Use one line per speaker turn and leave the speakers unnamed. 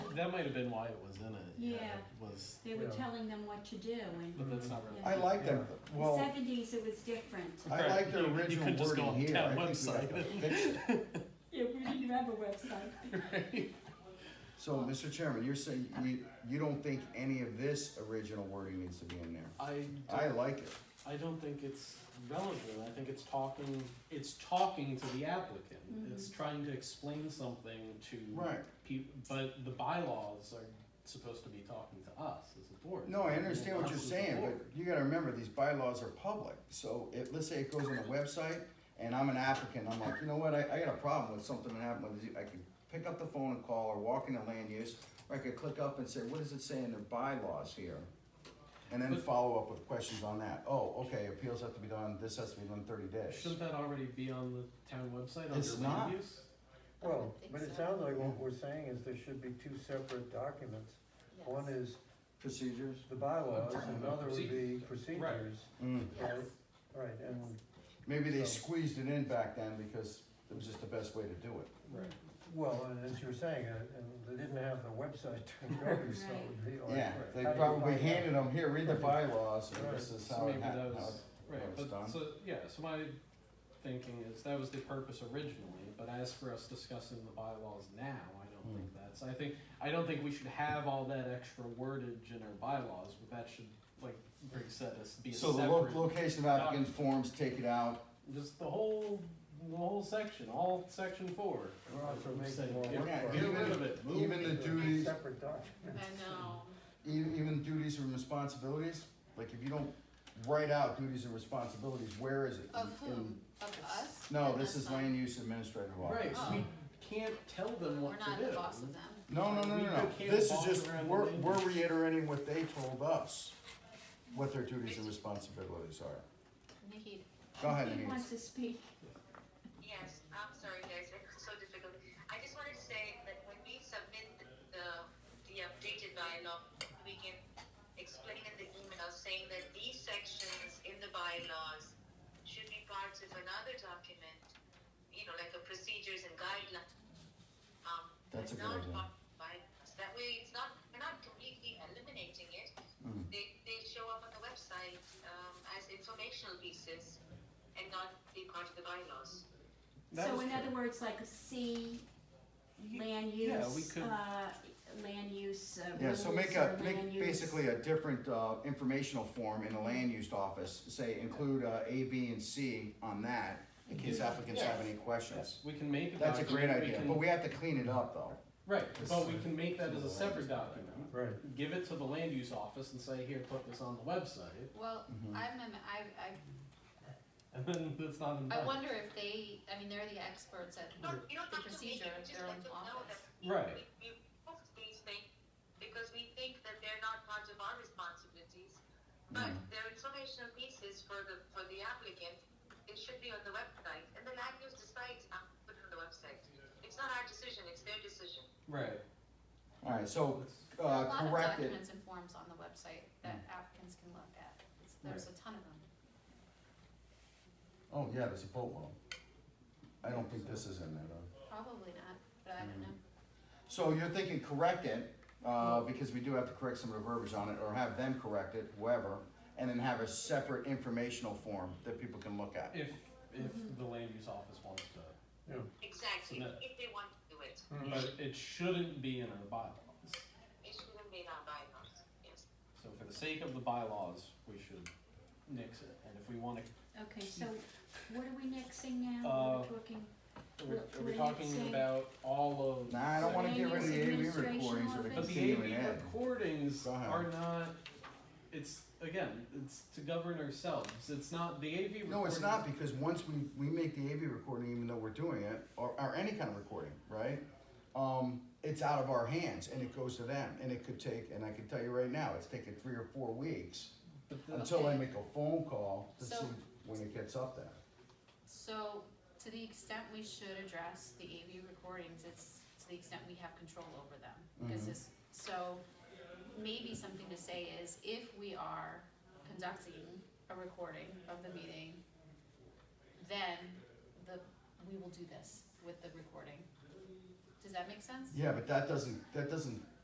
that might have been why it was in it.
Yeah.
It was,
They were
Yeah.
telling them what to do and
but that's not really.
Yeah.
I like them,
in the
well.
seventies it was different.
I like
You-
the
you could
original
just go
wording
on
here.
town
I think we have to
website.
fix it.
Yeah, we didn't have a website.
So, Mr. Chairman, you're saying you, you don't think any of this original wording needs to be in there?
I
I
don't,
like it.
I don't think it's relevant. I think it's talking, it's talking to the applicant. It's trying to explain something to
Right.
people, but the bylaws are supposed to be talking to us as a board.
No, I understand what
Us
you're
as a
saying, but
board.
you gotta remember, these bylaws are public, so it, let's say it goes on the website, and I'm an applicant, I'm like, you know what, I, I got a problem with something that happened with, the- I can pick up the phone and call, or walk into land use, or I could click up and say, what does it say in their bylaws here? And then
But-
follow up with questions on that, oh, okay, appeals have to be done, this has to be done thirty days.
Shouldn't that already be on the town website under
It's
land
not.
use?
Well,
think
but it
so.
sounds like what we're saying is there should be two separate documents. One
Yes.
is
Procedures?
the bylaws, and another would be
Right.
procedures.
Mm.
Right,
Yes.
right, and,
Maybe they
So-
squeezed it in back then because it was just the best way to do it.
Right.
well, and as you were saying, uh, and they didn't have the website to go to, so it would be like.
Yeah, they
how do you
probably
find out?
handed them, here, read the bylaws, and
Right.
this is
So
how
maybe
it
that
happened.
was, right,
how it's
but,
done.
so, yeah, so my thinking is that was the purpose originally, but as for us discussing the bylaws now, I don't
Hmm.
think that's, I think, I don't think we should have all that extra wordage in our bylaws, but that should, like Greg said, us be a
So the lo-
separate,
location of applicant forms, take it out,
just the whole, the whole section, all section four.
We're also
I'm
making
saying,
more
Get
work
for
get
it.
rid of it, move
even the
it.
duties,
Separate documents.
I know.
e- even duties and responsibilities, like if you don't write out duties and responsibilities, where is it?
Of
In-
whom?
in-
Of us?
No,
Then
this
that's
is
not-
land use administrative law.
Right,
Oh.
we can't tell them
We're
what to do.
not the boss of them.
No, no, no,
We
no, no,
can't
this is
boss
just,
around the
we're,
land
we're
use.
reiterating what they told us, what their duties and responsibilities are.
Nikki,
Go ahead, Denise.
He wants to speak.
Yes, I'm sorry, guys, it's so difficult. I just wanted to say that when we submit the, the, the updated dialogue, we can explain in the email saying that these sections in the bylaws should be parts of another document, you know, like a procedures and guidelines. Um, but
That's a good idea.
not part of bylaws. That way, it's not, we're not completely eliminating it.
Mm.
They, they show up on the website, um, as informational pieces and not be part of the bylaws.
That
So
was
in
true.
other words, like a C,
Ye-
land use,
yeah, we could-
uh, land use, uh,
Yeah, so make
rules
a,
or land
make
use.
basically a different, uh, informational form in the land use office, say include, uh, A, B, and C on that, in case applicants have any questions.
We can make a
That's a great
document, we
idea,
can-
but we have to clean it up though.
Right,
This
but
is-
we can make that
this
as
is
a
a land
separate
use
document.
Right,
Give it to the land use office and say, here, put this on the website,
well,
Mhm.
I'm, am- I, I,
and then it's not in
I
the-
wonder if they, I mean, they're the experts at
Uh,
No, you don't
the
have to make
procedure,
it, just
their
let
own
them know
office.
that we,
Right.
we, we post these things because we think that they're not part of our responsibilities. But they're informational pieces for the, for the applicant, it should be on the website, and the land use decides, uh, put it on the website. It's not our decision, it's their decision.
Right.
Alright, so,
Let's-
uh,
There are a lot of
correct it, Mm.
documents and forms on the website that applicants can look at, It's- there's a ton of them.
oh, yeah, there's a boatload. I don't think this is in there though.
Probably not, but I
Mm-hmm.
don't know.
So you're thinking correct it, uh, because we do have to correct some of the verbiage on it, or have them correct it, whoever, and then have a separate informational form that people can look at.
If, if the land use office wants to,
yeah.
Exactly,
Submit.
if they want to do it,
but it shouldn't be in our bylaws.
it shouldn't be in our bylaws, yes.
So for the sake of the bylaws, we should nix it, and if we wanna,
Okay, so what are we nixing now?
Uh,
We're talking,
are we, are
What- what
we
did it
talking
say?
about all of?
Nah, I don't wanna
Land
get rid of
use
the AV
administration
recordings or the
But
office.
the
continuing
AV
ed.
recordings
Go ahead.
are not, it's, again, it's to govern ourselves, it's not, the AV recordings.
No, it's not, because once we, we make the AV recording, even though we're doing it, or, or any kind of recording, right? Um, it's out of our hands and it goes to them, and it could take, and I can tell you right now, it's taking three or four weeks
But the-
until I
Okay.
make a phone call to see
So-
when it gets up there.
So, to the extent we should address the AV recordings, it's to the extent we have control over them. Because this, so, maybe something to say is, if we are conducting a recording of the meeting, then the, we will do this with the recording. Does that make sense?
Yeah, but that doesn't, that doesn't